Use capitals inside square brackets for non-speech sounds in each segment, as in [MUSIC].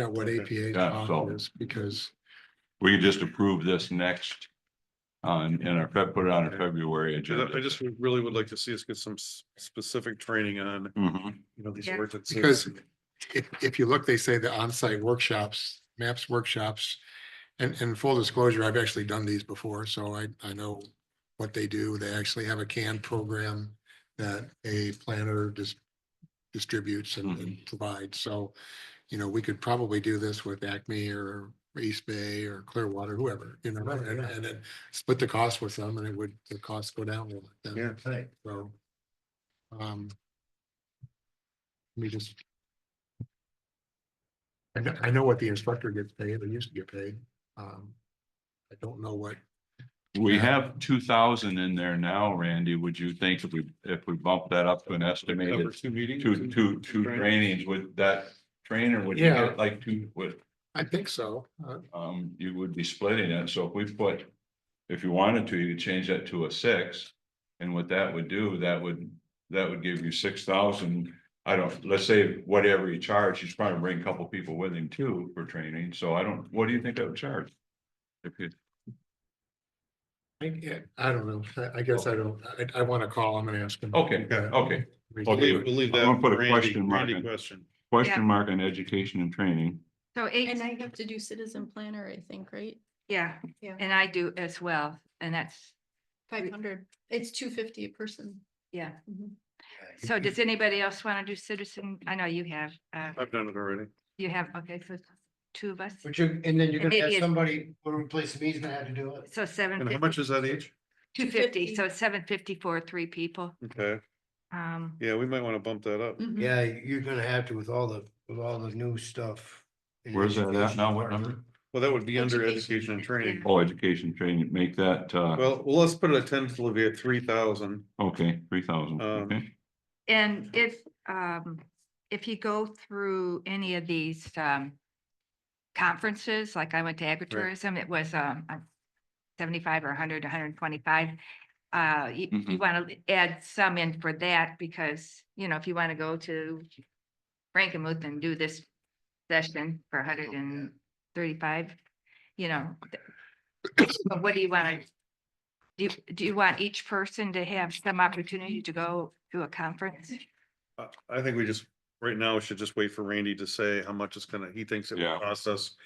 at what Okay. APA Yeah, so- policy is because We could just approve this next. On, in our, Feb- put it on our Okay. February agenda. I just would- really would like to see us get some s- specific training on, Mhm. you know, these Yeah. words. that say- Because- uh, if, if you look, they say the on-site workshops, maps workshops. And, and full disclosure, I've actually done these before, so I, I know what they do. They actually have a CAN program that a planner dis- distributes and and provides. So, you know, we could probably do this with Acme or East Bay or Clearwater, whoever, you know, Right, and, yeah. and then split the cost with them and it would, the cost go down. a little bit then. Yeah, right. So. Um. Let me just. I know, I know what the instructor gets paid, or used to get paid. Um. I don't know what, We Yeah. have two thousand in there now, Randy. Would you think if we, if we bump that up to an Number estimated two meetings. two, two, two trainings with that trainer would you Yeah. get like two, would, I think so. Uh, um, you would be splitting it. So if we put. If you wanted to, you could change that to a six. And what that would do, that would, that would give you six thousand. I don't, let's say whatever you charge, he's probably bring a couple people with him too for training. So I don't, what do you think that would charge? If you, I, yeah, I don't know. I, I guess I don't, I, I want to call him and ask him. okay, Yeah. okay. We I'll can do leave Believe, it. believe I'm that. gonna put a Randy- question mark Randy in. question. Question mark on education and training. So And eight, I have to do citizen planner, I think, right? yeah, Yeah. and I do as well, and that's, Five hundred, it's two fifty a person. yeah. Mm-hmm. So does anybody else want to do citizen? I know you have, uh, I've done it already. you have, okay, so two of us. But you, and then you're gonna Maybe have it's- somebody, when we place me, he's gonna have to do it. So seven, And how much is that each? two fifty, 250. so seven fifty for three people. Okay, Um, yeah, we might want to bump that up. Mhm. Yeah, you're gonna have to with all the, with all the new stuff. in Where's that at education now? What department. number? Well, that would be under Education, education and training. Oh, education training, make that, uh, Well, well, let's put it at ten to Olivia, three thousand. okay, three thousand, Um, okay. and if, um, if you go through any of these, um, conferences, like I went to agritourism, it was, um, uh, seventy-five or hundred, hundred and twenty-five. Uh, you, you Mhm. want to add some in for that because, you know, if you want to go to Frankenmuth and do this session for hundred and thirty-five, you know. th- but What do you want to? Do, you- do you want each person to have some opportunity to go to a conference? I, I think we just, right now, we should just wait for Randy to say how much it's gonna, he thinks it Yeah. will cost us.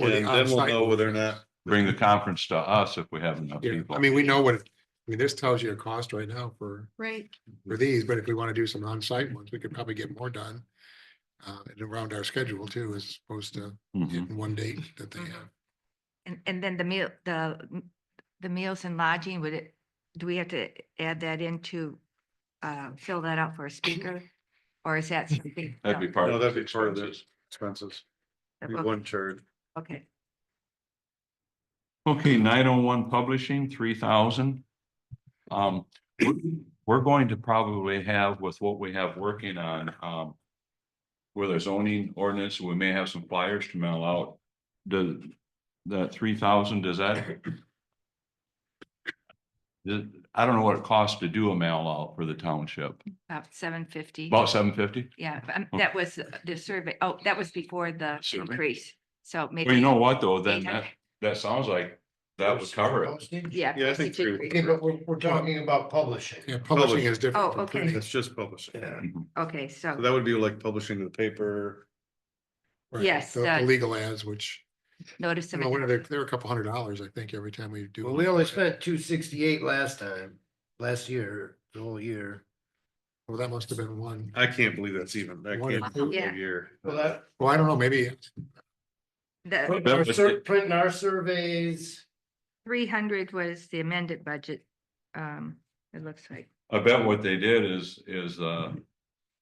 Or the And then we'll on-site know whether or workshops. not, Bring the conference to us if we have enough Yeah, people. I mean, we know what, it- I mean, this tells you a cost right now for, Right, for these, but if we want to do some on-site ones, we could probably get more done. Uh, and around our schedule too, as opposed to Mhm. hitting one date that they Mhm. have. And, and then the meal, the, m- the meals and lodging, would it, do we have to add that into, uh, fill that out for a speaker? Or is that something? [LAUGHS] That'd be part No, of. that'd the be part of expenses. expenses, no, we okay, wouldn't charge. Okay, Okay, nine oh one publishing, three thousand. Um, we're- we're going to probably have with what we have working on, um. With our zoning ordinance, we may have some flyers to mail out. The, that three thousand, does that? The- I don't know what it costs to do a mail out for the township, about seven fifty. about seven fifty? Yeah, but, um, that was the survey. Oh, that was before the oh. Survey. increase. So maybe. Well, you know what, though, then eight that, hundred- that sounds like that would cover it. Postage? Yeah. Yeah, I postage think three would Okay, increase. but we're, we're talking about publishing. Yeah, publishing is Oh, different. from okay. printing. That's just publishing. Yeah. Okay, So so, that would be like publishing the paper. Right, Yes, The the uh, legal ads, which, notice. you of know, what are they, adoption. they're a couple hundred dollars, I think, every time we do. Well, one. we only spent two sixty-eight last time, last year, the whole year. Well, that must have been one. I can't believe that's even, that can't be Yeah. a year. Well, that, Well, I don't know, maybe, The printing our was sur- it. printing our surveys. three hundred was the amended budget. Um, it looks like. I bet what they did is, is, uh, Mm-hmm.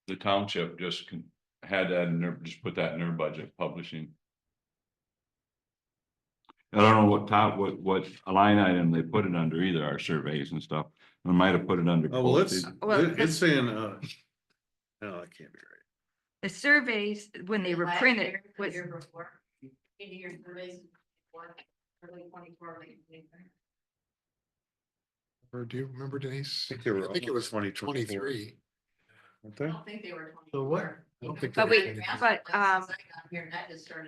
the township just con- had that in their, just put that in their budget, publishing. I don't know what top, what, what line item they put it under either, our surveys and stuff. They might have put it under. Oh, well, it's, postage. Well, it- it's saying, uh. No, that can't be right. The surveys, when they were printed, was, or do you remember Denise? I think they were I think it almost was 2024. twenty-three. Weren't they? think they were. So what? I don't think they but were we, 23. but, um, Here, that just started.